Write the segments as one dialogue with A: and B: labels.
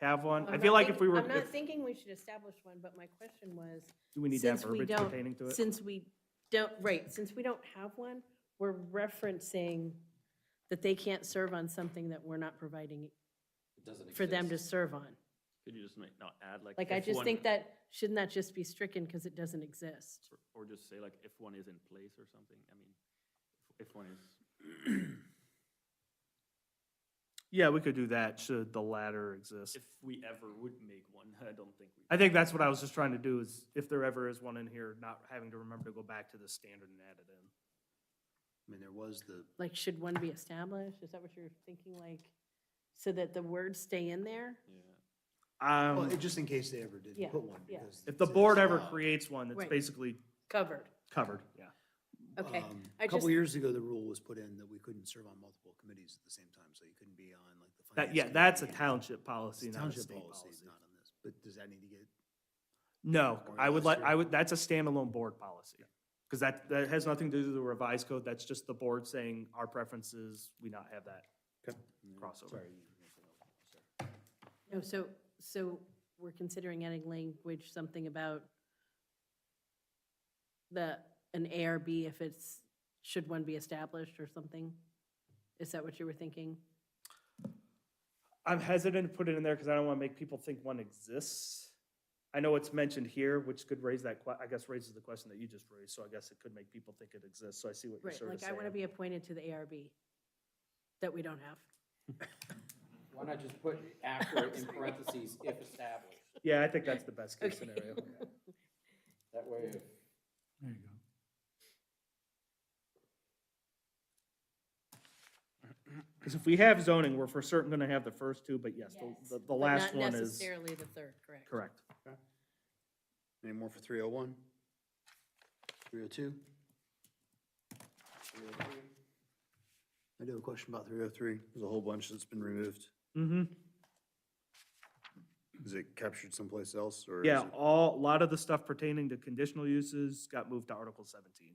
A: have one? I
B: I'm
A: feel
B: not
A: like
B: think-
A: if we were,
B: I'm not
A: if-
B: thinking we should establish one, but my question was,
A: do we need to have
B: since we
A: verbiage
B: don't-
A: pertaining to it?
B: since we don't, right, since we don't have one, we're referencing that they can't serve on something that we're not providing
C: It doesn't exist.
B: for them to serve on.
D: Could you just make, not add like?
B: Like, I
D: if
B: just
D: one-
B: think that, shouldn't that just be stricken because it doesn't exist?
D: or- Or just say like if one is in place or something, I mean, if if one is,
A: Yeah, we could do that, should the latter exist.
D: if we ever would make one, I don't think we.
A: I think that's what I was just trying to do, is if there ever is one in here, not having to remember to go back to the standard and add it in.
C: I mean, there was the,
B: Like, should one be established? Is that what you're thinking, like, so that the words stay in there?
D: Yeah.
C: well,
A: Um,
C: it- just in case they ever
B: Yeah,
C: did put one.
B: yeah.
C: because
A: if
C: it's-
A: the
C: it's
A: board ever
C: allowed.
A: creates one, that's
B: Right.
A: basically
B: Covered.
A: covered, yeah.
B: Okay,
C: Um,
B: I
C: A couple
B: just-
C: years ago, the rule was put in that we couldn't serve on multiple committees at the same time, so you couldn't be on like the.
A: That,
C: finance
A: yeah, that's a
C: committee.
A: township policy,
C: It's
A: not a
C: Township
A: state
C: policy,
A: policy.
C: not on this, but does that need to get,
A: No,
C: Or
A: I would
C: unless
A: let,
C: you're-
A: I would, that's a standalone board policy. Because that, that has nothing to do with the revised code, that's just the board saying our preferences, we not have that crossover.
C: sorry. you- sorry.
B: No, so, so we're considering adding language, something about the, an ARB if it's, should one be established or something? Is that what you were thinking?
A: I'm hesitant to put it in there because I don't want to make people think one exists. I know it's mentioned here, which could raise that, que- I guess raises the question that you just raised, so I guess it could make people think it exists, so I see what you're
B: Right,
A: sort of
B: like
A: saying.
B: I want to be appointed to the ARB that we don't have.
E: Why not just put after in parentheses, if established?
A: Yeah, I think that's the best case
B: Okay.
A: scenario.
E: That way, if
F: There you go.
A: Because if we have zoning, we're for certain going to have the first two, but yes, the-
B: Yes.
A: the, the
B: But
A: last
B: Not
A: one is
B: necessarily the third, correct?
A: correct.
C: Any more for three oh one? Three oh two? oh I do have a question about three oh three. There's a whole bunch that's been removed.
A: Mm-hmm.
C: Is it captured someplace else or? is
A: Yeah,
C: it-
A: all, a lot of the stuff pertaining to conditional uses got moved to Article seventeen.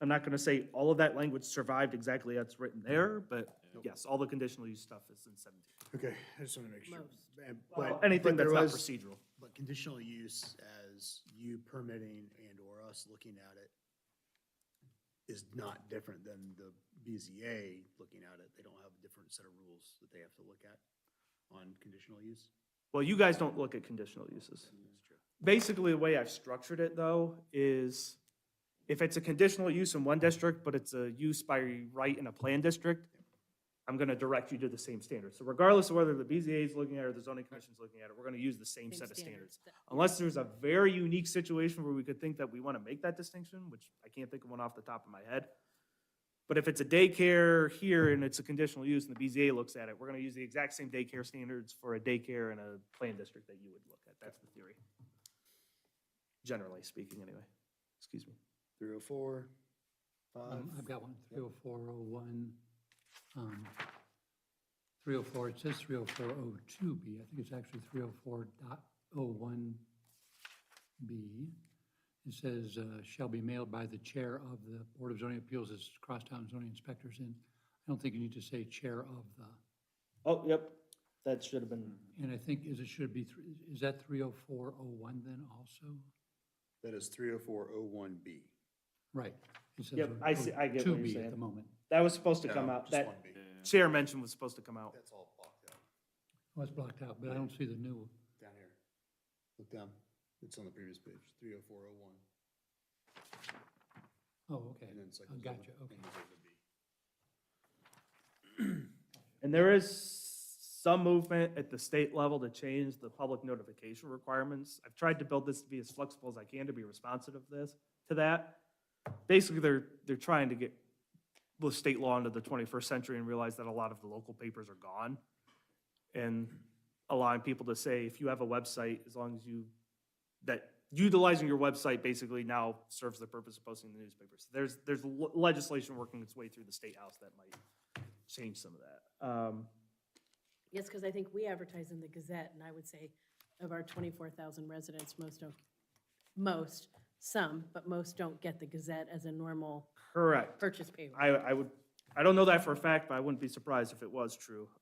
A: I'm not gonna say all of that language survived exactly as it's written there, but yes, all the conditional use stuff is in seventeen.
C: Okay, I just want to make sure.
B: Most.
C: And-
A: Well,
C: but-
A: Anything
C: but
A: that's
C: there
A: not
C: was-
A: procedural.
C: But conditional use as you permitting and or us looking at it is not different than the BZA looking at it. They don't have a different set of rules that they have to look at on conditional use.
A: Well, you guys don't look at conditional uses. Basically, the way I've structured it though is if it's a conditional use in one district, but it's a use by right in a plan district, I'm gonna direct you to the same standards. So regardless of whether the BZA is looking at it or the zoning commission is looking at it, we're gonna use the same set of standards. Unless there's a very unique situation where we could think that we want to make that distinction, which I can't think of one off the top of my head. But if it's a daycare here and it's a conditional use and the BZA looks at it, we're going to use the exact same daycare standards for a daycare in a plan district that you would look at. That's the theory. Generally speaking, anyway. Excuse me.
C: Three oh four, five.
F: Um, I've
A: Mm-hmm.
F: got one, 30401. um, 304, it says 30402B, I think it's actually 304.01B. It says, uh, shall be mailed by the chair of the Board of Zoning Appeals as Crosstown Zoning Inspectors, and I don't think you need to say chair of the,
A: Oh, yep. That should have been,
F: and I think is it should be, thr- is that 30401 then also?
C: That is three oh four oh one B.
F: Right. it says
A: Yep, I see- I get what you're
F: 02B
A: saying.
F: At the moment.
A: that was supposed to come out. That chair mention was supposed to come out.
C: That's all blocked out,
F: Well, it's blocked out, but I don't see the new one.
C: down here. Look down, it's on the previous page, three oh four oh one.
F: Oh, okay.
C: And then it's like.
F: I Gotcha, okay.
A: And there is some movement at the state level to change the public notification requirements. I've tried to build this to be as flexible as I can to be responsive of this, to that. Basically, they're, they're trying to get the state law into the twenty-first century and realize that a lot of the local papers are gone. And allowing people to say, if you have a website, as long as you, that utilizing your website basically now serves the purpose of posting the newspapers. There's, there's le- legislation working its way through the state house that might change some of that. Um,
B: Yes, because I think we advertise in the Gazette, and I would say of our 24,000 residents, most don't, most, some, but most don't get the Gazette as a normal
A: Correct.
B: purchase paper.
A: I, I would, I don't know that for a fact, but I wouldn't be surprised if it was true.